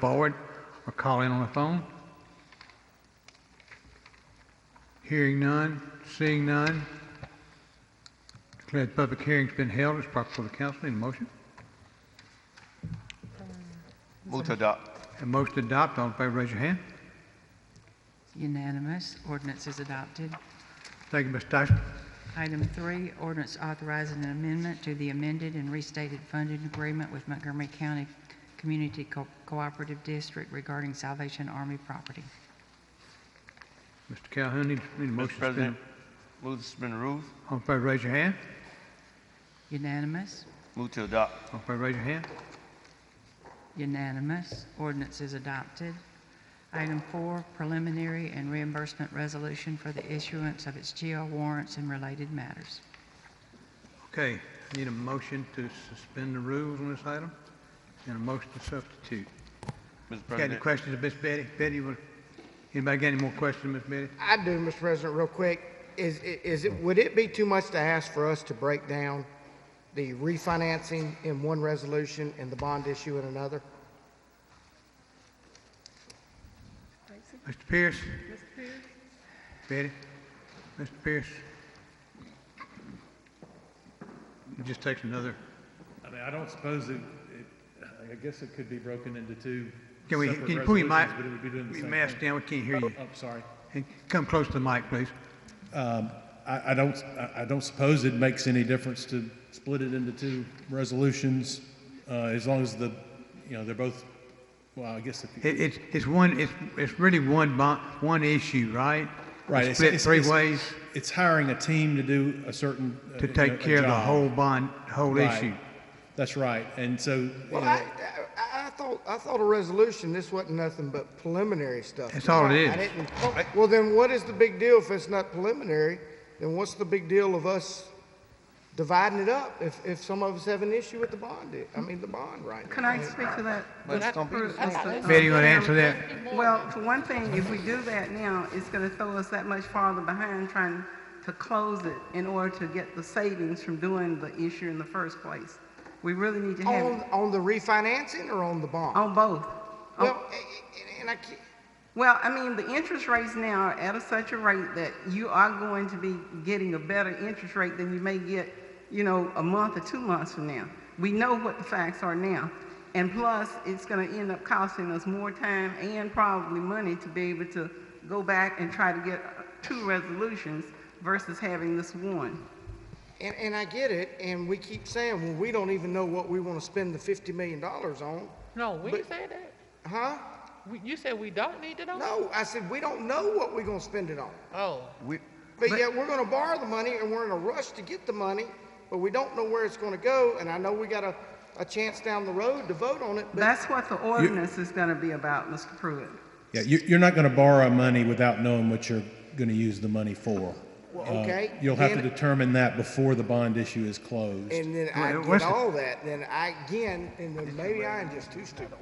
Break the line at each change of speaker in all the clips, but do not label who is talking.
forward or call in on the phone? Hearing none, seeing none. Declare the public hearing's been held. It's proper for the council. Need a motion?
Move to adopt.
A motion to adopt. All in favor, raise your hand.
Unanimous. Ordinance is adopted.
Thank you, Ms. Tyson.
Item three, ordinance authorizing an amendment to the amended and restated funding agreement with Montgomery County Community Co- Cooperative District regarding Salvation Army property.
Mr. Calhoun, need, need a motion
Mr.
to
President,
suspend.
move to suspend the rules.
All in favor, raise your hand.
Unanimous.
Move to adopt.
All in favor, raise your hand.
Unanimous. Ordinance is adopted. Item four, preliminary and reimbursement resolution for the issuance of its GL warrants and related matters.
Okay, need a motion to suspend the rules on this item and a motion to substitute.
Mr.
Got any
President,
questions of Ms. Betty? Betty, will- anybody got any more questions, Ms. Betty?
I do, Mr. President, real quick. Is, is it, would it be too much to ask for us to break down the refinancing in one resolution and the bond issue in another?
Mr. Pierce? Betty? Mr. Pierce? It just takes another,
I mean, I don't suppose it, it, I guess it could be broken into two
can we,
separate
can you pull your mic?
resolutions, But it would be doing the
your
same
Mask
thing.
down, we can't hear you.
Oh, sorry.
And Come close to the mic, please.
I, I don't, I, I don't suppose it makes any difference to split it into two resolutions, uh, as long as the, you know, they're both, well, I guess if you.
It, it's, it's one, it's, it's really one bond, one issue, right?
Right, it's-
Split
it's-
three
it's-
ways
It's hiring a team to do a certain. uh,
to
you know, a
take care of the
job.
whole bond, whole
Right.
issue.
That's right, and so, you
Well,
know,
I, I, I thought, I thought a resolution, this wasn't nothing but preliminary stuff.
That's all it is.
I didn't, well, then what is the big deal if it's not preliminary? Then what's the big deal of us dividing it up if, if some of us have an issue with the bond, i- I mean, the bond right now?
Can I speak to that?
But it's gonna be-
For instance,
Betty, you
um,
want to answer that?
Well, for one thing, if we do that now, it's going to throw us that much farther behind trying to close it in order to get the savings from doing the issue in the first place. We really need to have Oh,
On,
it
on the refinancing or on the bond?
on both. On-
Well, a- a- and I can't,
Well, I mean, the interest rates now are at a such a rate that you are going to be getting a better interest rate than you may get, you know, a month or two months from now. We know what the facts are now. And plus, it's going to end up costing us more time and probably money to be able to go back and try to get two resolutions versus having this one.
And, and I get it, and we keep saying, well, we don't even know what we want to spend the fifty million dollars on,
No, we
But-
didn't say that.
huh?
We- You said we don't need to know?
No, I said, we don't know what we're gonna spend it on.
Oh,
we,
But yet, we're gonna borrow the money, and we're in a rush to get the money, but we don't know where it's gonna go, and I know we got a, a chance down the road to vote on it, but
That's what the ordinance is going to be about, Mr. Pruitt.
yeah, you, you're not gonna borrow money without knowing what you're gonna use the money for.
Well,
Uh,
okay,
You'll have to
then-
determine that before the bond issue is closed.
And then I
Well,
get
what's the-
all that, then I, again, and then maybe I am just too stupid,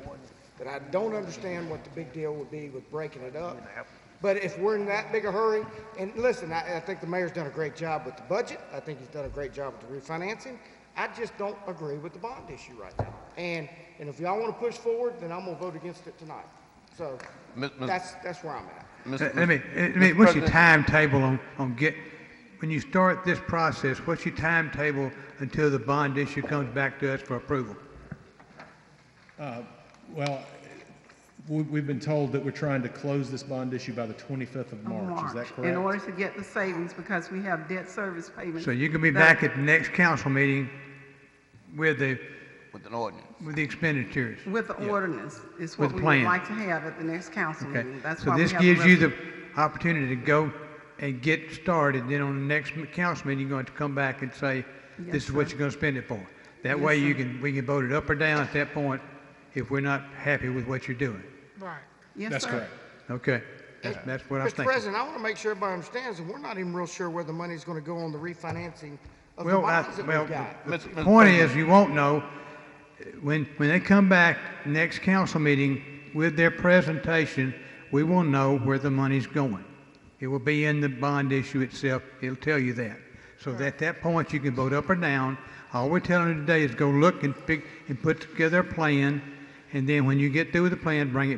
that I don't understand what the big deal would be with breaking it up. But if we're in that big a hurry, and listen, I, I think the mayor's done a great job with the budget, I think he's done a great job with the refinancing. I just don't agree with the bond issue right now. And, and if y'all wanna push forward, then I'm gonna vote against it tonight. So,
Ms. Ms.
that's, that's where I'm at.
Mr.
Let Uh, let me, let me, what's
Mr.
your
President.
timetable on, on get, when you start this process, what's your timetable until the bond issue comes back to us for approval?
Well, we- we've been told that we're trying to close this bond issue by the 25th of
of
March. Is that
March, In order
correct?
to get the savings because we have debt service payments.
So you can be
that-
back at the next council meeting with the,
with an ordinance.
with the expenditures.
With the ordinance is
With
what
the
we
plan.
would like to have at the next council
Okay,
meeting. Mm-hmm. That's
so
why we
this
have
gives you
resol-
the opportunity to go and get started, then on the next m- council meeting, you're going to come back and say, this
Yes,
is what
sir.
you're going to spend it for. That way you can, we can vote it up or down at that point if we're not happy with what you're doing.
right.
Yes,
That's
sir.
correct.
Okay, that's, that's what I'm
Mr.
thinking.
President, I wanna make sure everybody understands that we're not even real sure where the money's gonna go on the refinancing of the
Well, I,
bonds that
well,
we've got.
the
Mr. Mr.
point
President.
is, you won't know, when, when they come back next council meeting with their presentation, we will know where the money's going. It will be in the bond issue itself, it'll tell you that. So at that point, you can vote up or down. All we're telling you today is go look and pick, and put together a plan and then when you get through with the plan, bring it